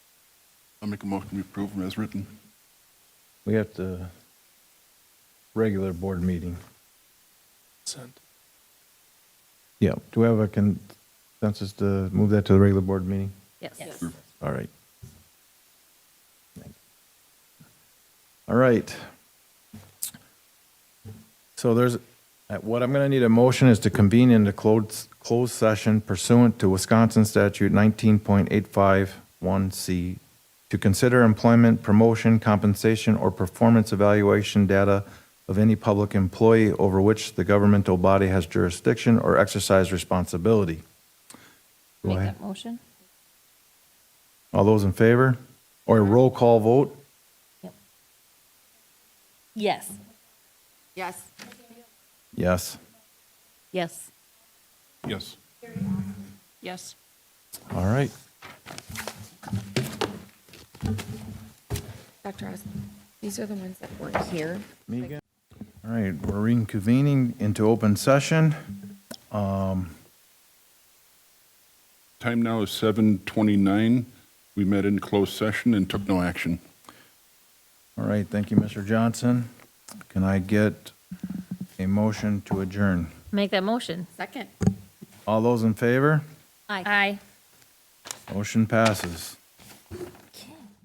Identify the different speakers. Speaker 1: I'll make a motion to approve them as written.
Speaker 2: We have to, regular board meeting.
Speaker 3: Consent.
Speaker 2: Yeah, do we have a consensus to move that to the regular board meeting? Mm-hmm.
Speaker 4: Yes.
Speaker 1: Sure.
Speaker 2: All right. All right. So there's, uh, what I'm going to need a motion is to convene into closed, closed session pursuant to Wisconsin statute 19.851C to consider employment, promotion, compensation, or performance evaluation data of any public employee over which the governmental body has jurisdiction or exercise responsibility. Go
Speaker 4: Make
Speaker 2: ahead.
Speaker 4: that motion?
Speaker 2: All those in favor? Or a roll call vote?
Speaker 4: Yep. Yes.
Speaker 5: Yes.
Speaker 2: Yes.
Speaker 4: Yes.
Speaker 1: Yes.
Speaker 5: Yes.
Speaker 2: All right.
Speaker 5: Dr. Osmond, these are the ones that weren't here.
Speaker 2: Megan? All right, we're reconvening into open session.
Speaker 1: Time now is 7:29. We met in closed session and took no action.
Speaker 2: All right, thank you, Mr. Johnson. Can I get a motion to adjourn?
Speaker 4: Make that motion.
Speaker 5: Second.
Speaker 2: All those in favor?
Speaker 4: Aye. Aye.
Speaker 2: Motion passes.